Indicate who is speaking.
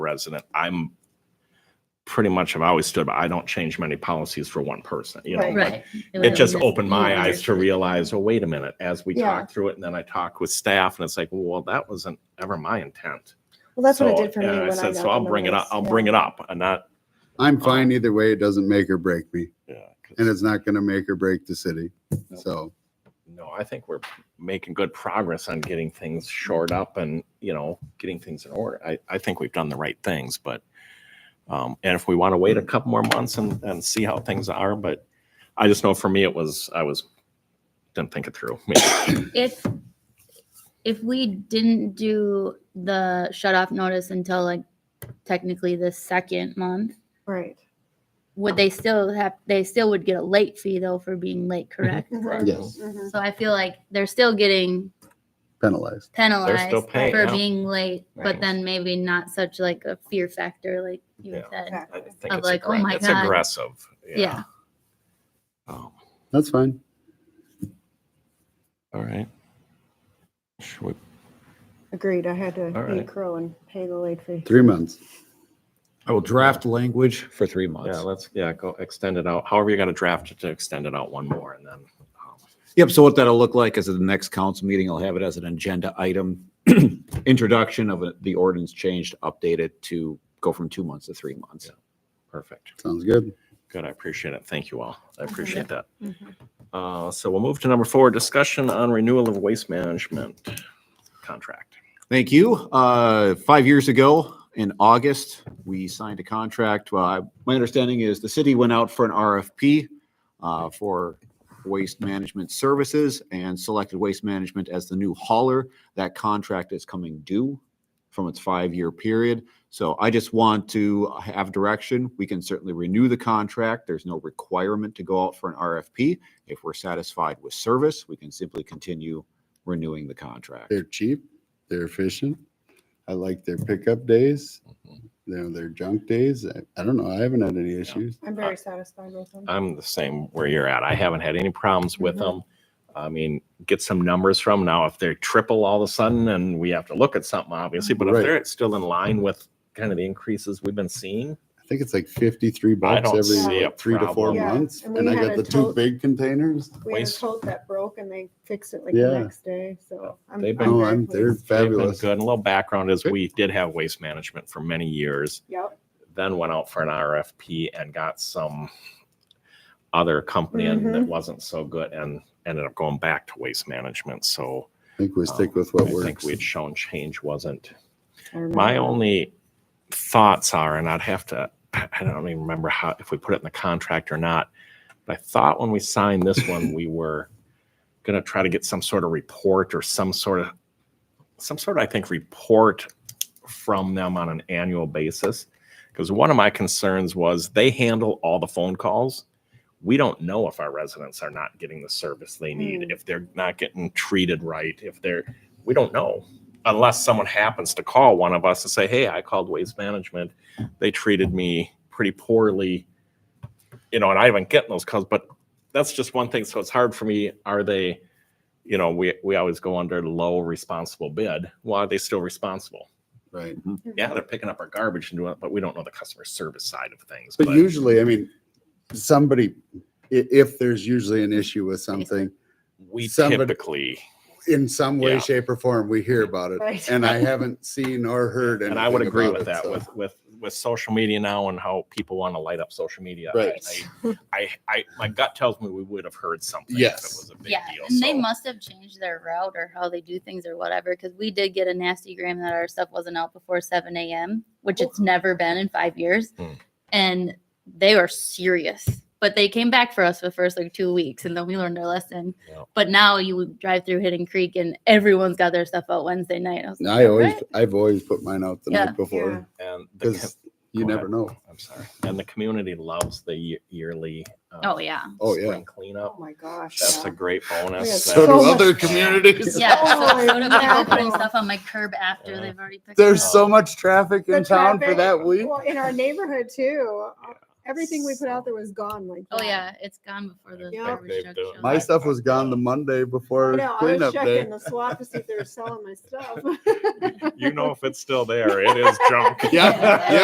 Speaker 1: resident. I'm pretty much, I've always stood, by I don't change many policies for one person, you know?
Speaker 2: Right.
Speaker 1: but
Speaker 2: Right.
Speaker 1: It just
Speaker 2: was-
Speaker 1: opened my eyes to
Speaker 2: Yeah.
Speaker 1: realize, oh, wait a minute, as we
Speaker 3: Yeah.
Speaker 1: talk through it and then I talk with staff and it's like, well, that wasn't ever my intent.
Speaker 3: Well, that's what it
Speaker 1: So-
Speaker 3: did for me.
Speaker 1: and I
Speaker 3: when
Speaker 1: said,
Speaker 3: got
Speaker 1: So I'll
Speaker 3: on the
Speaker 1: bring it up,
Speaker 3: list,
Speaker 1: I'll
Speaker 3: yeah.
Speaker 1: bring it up and not,
Speaker 4: I'm fine either way. It doesn't make or break me,
Speaker 1: yeah. 'cause-
Speaker 4: and it's not going to make or break the city. So
Speaker 1: No, I think we're making good progress on getting things shored
Speaker 2: Mm-hmm.
Speaker 1: up and, you know, getting things in order. I, I think we've done the right things, but, um, and if we want to wait a couple more months and, and see how things are, but I just know for me, it was, I was, didn't think it through.
Speaker 2: If, if we didn't do the shut off notice until like technically the second month,
Speaker 3: Right.
Speaker 2: would they still have, they still would get a late fee though for being late,
Speaker 1: Mm-hmm.
Speaker 2: correct?
Speaker 3: Mhm,
Speaker 4: yes,
Speaker 3: mhm.
Speaker 2: So I feel like they're still getting
Speaker 4: penalized.
Speaker 2: penalized
Speaker 1: still paying,
Speaker 2: for
Speaker 1: yeah.
Speaker 2: being late, but
Speaker 1: Right.
Speaker 2: then maybe not such like a fear factor like you
Speaker 1: Yeah.
Speaker 2: said.
Speaker 1: I
Speaker 3: Exactly.
Speaker 1: think
Speaker 2: Of
Speaker 1: it's
Speaker 2: like, oh
Speaker 1: aggra-
Speaker 2: my
Speaker 1: It's
Speaker 2: God.
Speaker 1: aggressive.
Speaker 2: Yeah.
Speaker 1: Um,
Speaker 4: That's fine.
Speaker 1: All right. Should we-
Speaker 3: Agreed. I had to
Speaker 1: All
Speaker 3: eat
Speaker 1: right.
Speaker 3: crow and pay the late fee.
Speaker 4: Three months.
Speaker 5: I will draft language for three
Speaker 1: Yeah,
Speaker 5: months.
Speaker 1: let's, yeah, go extend it out. However, you got to draft it to extend it out one more and then. um,
Speaker 5: Yep, so what that'll look like is at the next council meeting, I'll have it as an agenda item. Introduction of it- the ordinance change to update it to go from two months to three months.
Speaker 1: Perfect.
Speaker 4: Sounds good.
Speaker 1: Good, I appreciate it. Thank you all. I
Speaker 2: Mhm.
Speaker 1: appreciate that.
Speaker 3: Mhm.
Speaker 1: Uh, So we'll move to number four, discussion on renewal of waste management contract.
Speaker 5: Thank you. Uh, Five years ago, in August, we signed a contract. Well, I- my understanding is the city went out for an RFP uh, for waste management services and selected waste management as the new hauler. That contract is coming due from its five-year period. So I just want to have direction. We can certainly renew the contract. There's no requirement to go out for an RFP. If we're satisfied with service, we can simply continue renewing the contract.
Speaker 4: They're cheap. They're efficient. I like their pickup days.
Speaker 1: Mm-hmm.
Speaker 4: Their their junk days. I, I don't know. I haven't had any issues.
Speaker 3: I'm very satisfied with them.
Speaker 1: I'm the same where you're at. I haven't had any problems with
Speaker 3: Mhm.
Speaker 1: them. I mean, get some numbers from now if they're triple all of a sudden and we have to look at something, obviously, but if
Speaker 4: Right.
Speaker 1: they're still in line with kind of the increases we've been seeing.
Speaker 4: I think it's like fifty three bucks
Speaker 1: don't
Speaker 4: every
Speaker 1: see a
Speaker 4: what, three to four
Speaker 1: problem.
Speaker 3: Yeah,
Speaker 4: months,
Speaker 3: and
Speaker 4: and
Speaker 3: we
Speaker 4: I
Speaker 3: had
Speaker 4: got
Speaker 3: a
Speaker 4: the two
Speaker 3: tote-
Speaker 4: big containers.
Speaker 3: We had a
Speaker 1: waste-
Speaker 3: tote that broke and they fixed it like the
Speaker 4: Yeah.
Speaker 3: next day, so. I'm-
Speaker 1: They've
Speaker 3: I'm
Speaker 1: been-
Speaker 4: No,
Speaker 3: very
Speaker 4: I'm they're
Speaker 3: pleased.
Speaker 1: They've been
Speaker 4: fabulous.
Speaker 1: Good. And a little background is we did have waste management for many years.
Speaker 3: Yep.
Speaker 1: then went out for an RFP and got some other company and it wasn't so good and ended up going back to waste management. So
Speaker 4: I think we stick
Speaker 1: um,
Speaker 4: with what
Speaker 1: I think
Speaker 4: works.
Speaker 1: we had shown change wasn't.
Speaker 3: I remember
Speaker 1: My
Speaker 3: that.
Speaker 1: only thoughts are, and I'd have to, I don't even remember how, if we put it in the contract or not. But I thought when we signed this one, we were going to try to get some sort of report or some sort of, some sort of, I think, report from them on an annual basis. Because one of my concerns was they handle all the phone calls. We don't know if our residents are not getting the service they need,
Speaker 3: Hmm.
Speaker 1: if they're not getting treated right, if they're, we don't know. Unless someone happens to call one of us and say, hey, I called Waste Management. They treated me pretty poorly. You know, and I haven't gotten those calls, but that's just one thing. So it's hard for me. Are they, you know, we, we always go under low responsible bid. Why are they still responsible?
Speaker 4: Right.
Speaker 3: Mm-hmm.
Speaker 1: yeah, they're picking up our garbage and doing it, but we don't know the customer service side of things.
Speaker 4: But usually, I mean, somebody, i- if there's usually an issue with something,
Speaker 1: we
Speaker 4: somebody-
Speaker 1: typically,
Speaker 4: in some way,
Speaker 1: Yeah.
Speaker 4: shape, or form, we hear about it.
Speaker 3: Right.
Speaker 4: And I haven't seen or heard anything.
Speaker 1: and I would agree
Speaker 4: about
Speaker 1: with
Speaker 4: it,
Speaker 1: that
Speaker 4: so.
Speaker 1: with with with social media now and how people want to light up social media.
Speaker 4: Right.
Speaker 1: I, I, I my gut tells me we would have heard something if
Speaker 4: Yes.
Speaker 1: it was a big
Speaker 2: Yeah,
Speaker 1: deal.
Speaker 2: and they
Speaker 1: so-
Speaker 2: must have changed their route or how they do things or whatever, because we did get a nasty gram that our stuff wasn't out before seven AM, which it's never been in five years.
Speaker 1: Hmm.
Speaker 2: And they are serious, but they came back for us for the first like two weeks and then we learned our lesson.
Speaker 1: Yeah.
Speaker 2: But now you drive through Hidden Creek and everyone's got their stuff out Wednesday night. I was
Speaker 4: And
Speaker 2: like,
Speaker 4: I always,
Speaker 2: "Alright."
Speaker 4: I've always put mine out the
Speaker 2: Yeah.
Speaker 4: night
Speaker 3: Yeah.
Speaker 4: before
Speaker 1: and the,
Speaker 4: because
Speaker 1: com-
Speaker 4: you
Speaker 1: Go
Speaker 4: never
Speaker 1: ahead.
Speaker 4: know.
Speaker 1: I'm sorry, and the community loves the ye- yearly. Uh,
Speaker 2: Oh, yeah.
Speaker 4: Oh, yeah.
Speaker 1: spring
Speaker 3: Oh,
Speaker 1: cleanup.
Speaker 3: my gosh.
Speaker 1: That's
Speaker 3: yeah.
Speaker 1: a great bonus.
Speaker 3: Yeah,
Speaker 1: that-
Speaker 3: So do much- other
Speaker 4: communities.
Speaker 2: Yeah, so,
Speaker 3: Oh,
Speaker 2: so do people putting
Speaker 3: yeah.
Speaker 2: stuff on my curb after
Speaker 1: Yeah. Oh.
Speaker 2: they've already picked it
Speaker 4: There's
Speaker 2: up.
Speaker 4: so much traffic
Speaker 3: The
Speaker 4: in town for
Speaker 3: traffic- Oh,
Speaker 4: that week.
Speaker 3: Well, in our neighborhood too. uh, Everything we put out there was gone like.
Speaker 2: Oh
Speaker 3: that.
Speaker 2: yeah, it's gone before the
Speaker 3: Yeah.
Speaker 2: garbage
Speaker 6: They've
Speaker 2: truck
Speaker 6: done-
Speaker 2: shows
Speaker 4: My
Speaker 2: up.
Speaker 4: stuff was gone the Monday before
Speaker 3: I know, I
Speaker 4: cleanup
Speaker 3: was
Speaker 4: day.
Speaker 3: checking the swap to see if they were selling my stuff.
Speaker 1: You know if it's still there. It is junk.
Speaker 4: Yeah, yeah.